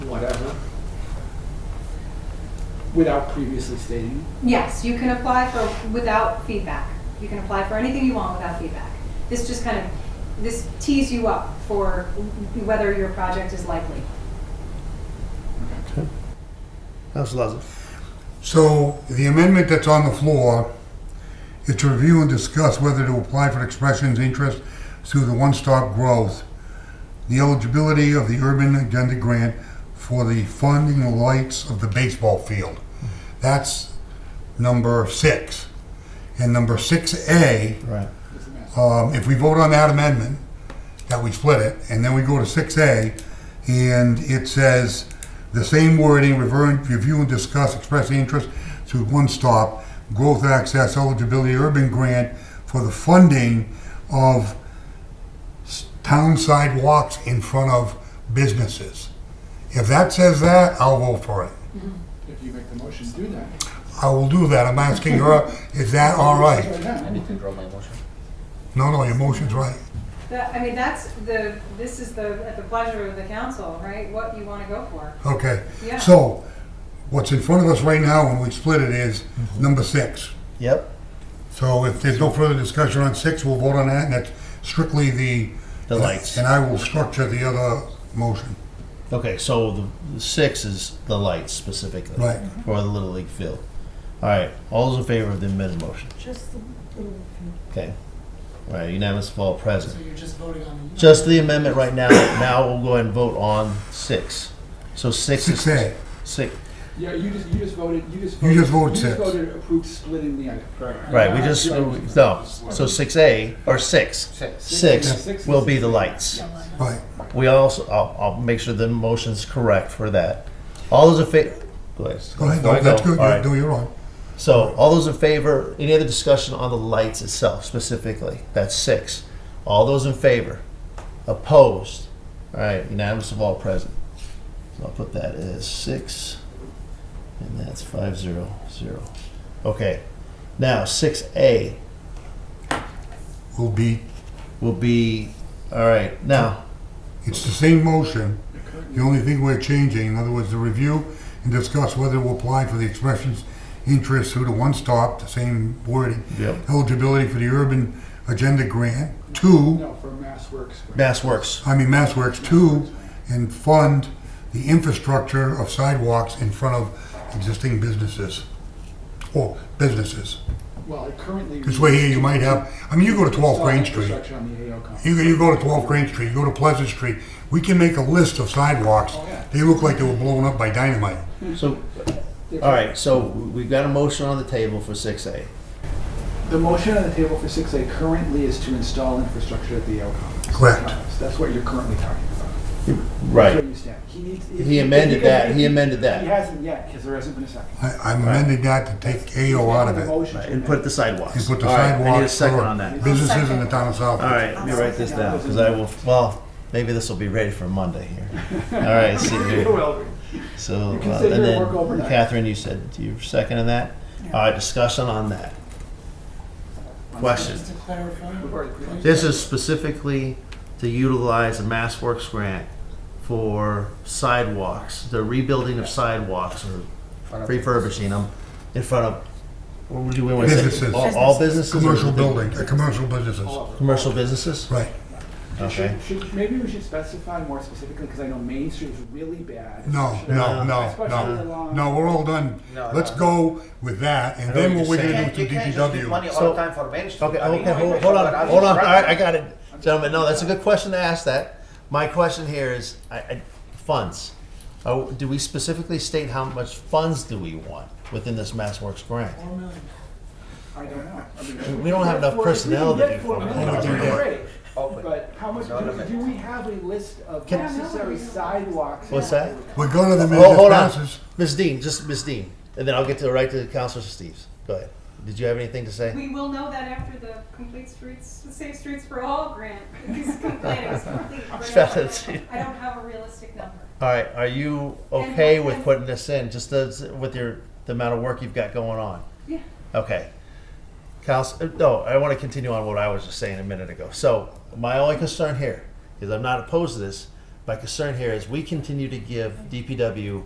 without previously stating? Yes, you can apply for, without feedback. You can apply for anything you want without feedback. This just kind of, this tees you up for whether your project is likely. Okay. Counselor Lozey. So the amendment that's on the floor is to review and discuss whether to apply for expressions interest through the One Stop Growth, the eligibility of the Urban Agenda Grant for the funding the lights of the baseball field. That's number six. And number six A, Right. um, if we vote on that amendment, that we split it, and then we go to six A, and it says the same wording, rever- review and discuss, express interest through one stop, growth access eligibility urban grant for the funding of s- town sidewalks in front of businesses. If that says that, I'll vote for it. If you make the motion, do that. I will do that. I'm asking her, is that all right? I need to draw my motion. No, no, your motion's right. That, I mean, that's the, this is the, at the pleasure of the council, right? What you want to go for. Okay. Yeah. So, what's in front of us right now when we split it is Mm-hmm. number six. Yep. So if there's no further discussion on six, we'll vote on that, and that's strictly the. The lights. And I will structure the other motion. Okay, so the, the six is the lights specifically Right. for the Little League field. All right, all those in favor of the amended motion? Just the little thing. Okay. All right, unanimous of all present. So you're just voting on the. Just the amendment right now. Now we'll go ahead and vote on six. So six is Six A. six. Yeah, you just, you just voted, you just You voted. just voted six. You just voted approved splitting the item. Correct. Right, we just no. So six A or six. Uh, Six. Six will be the lights. Right. We also, I'll, I'll make sure the motion's correct for that. All those in favor. Go ahead. Go ahead, Before I no, that's go, good, all right. You're- no, you're on. So, all those in favor, any other discussion on the lights itself specifically? That's six. All those in favor? Opposed? All right, unanimous of all present. So I'll put that as six, and that's five zero zero. Okay, now six A Will be, will be, all right, now, it's the same motion, the only thing we're changing, in other words, the review and discuss whether we'll apply for the expressions interest through the one stop, the same wording. Yep. Eligibility for the urban agenda grant, two. No, for Mass Works. Mass Works. I mean, MassWorks too, and fund the infrastructure of sidewalks in front of existing businesses. Or businesses. Well, it currently. This way here, you might have, I mean, you go to 12 Crane Street, Infrastructure on the AO complex. you, you go to 12 Crane Street, you go to Pleasant Street, we can make a list of sidewalks. They look like they were blown up by dynamite. So, all right, so we've got a motion on the table for six A. The motion on the table for six A currently is to install infrastructure at the AO complex. Correct. That's what you're currently talking about. That's where you stand. He needs. if- He amended if- if- that, he amended He that. hasn't yet, because there hasn't been a second. I, I amended that to take AO out He's of making a it. motion to And put amend. the sidewalks. And put the All right, I need a sidewalks second for on that. businesses in the town of South. All right, let me write this down, because I will, well, maybe this will be ready for Monday here. All right, see It here. will be. So, You uh, can sit and here and work then overnight. Catherine, you said you're seconding that? All right, discussion on that. Question. Just to clarify. We've already pretty much- This is specifically to utilize a Mass Works grant for sidewalks, the rebuilding of sidewalks or refurbishing them in front of, what would you, we want to say? Businesses. All- All businesses? or Commercial the- building, uh, commercial businesses, All over. Commercial businesses? right. Okay. Should- should- Maybe we should specify more specifically, because I know Main Street is really bad. No, no, no, Especially no, along- no, we're all done. No, Let's no. go with that, and I know then what what we're you're gonna can't- do you to can't just give money DPW. all the time for Main Street. Okay, I mean, okay, hold, hold on, hold on. All right, I got it, gentlemen. No, that's a good question to ask. That my question here is, I, I, funds. Oh, do we specifically state how much funds do we want within this MassWorks grant? Four million. I don't know. I mean, We don't have enough if we can personnel to get do four four million, million. that'd be great. Open. But how much, No, no, no. do we have a list of Can- necessary sidewalks? What's that? We're going to the Hold, minute hold on, passes. Ms. Dean, just Ms. Dean, and then I'll get to the right to Councilor Steves. Go ahead. Did you have anything to say? We will know that after the complete streets, Safe Streets for All grant is completed. It's complete, but I don't- I don't have a realistic number. All right, are you okay with putting this in, just as, with your, the amount of work you've got going on? Yeah. Okay. Counsel, uh, no, I want to continue on what I was just saying a minute ago. So my only concern here is I'm not opposed to this. My concern here is we continue to give DPW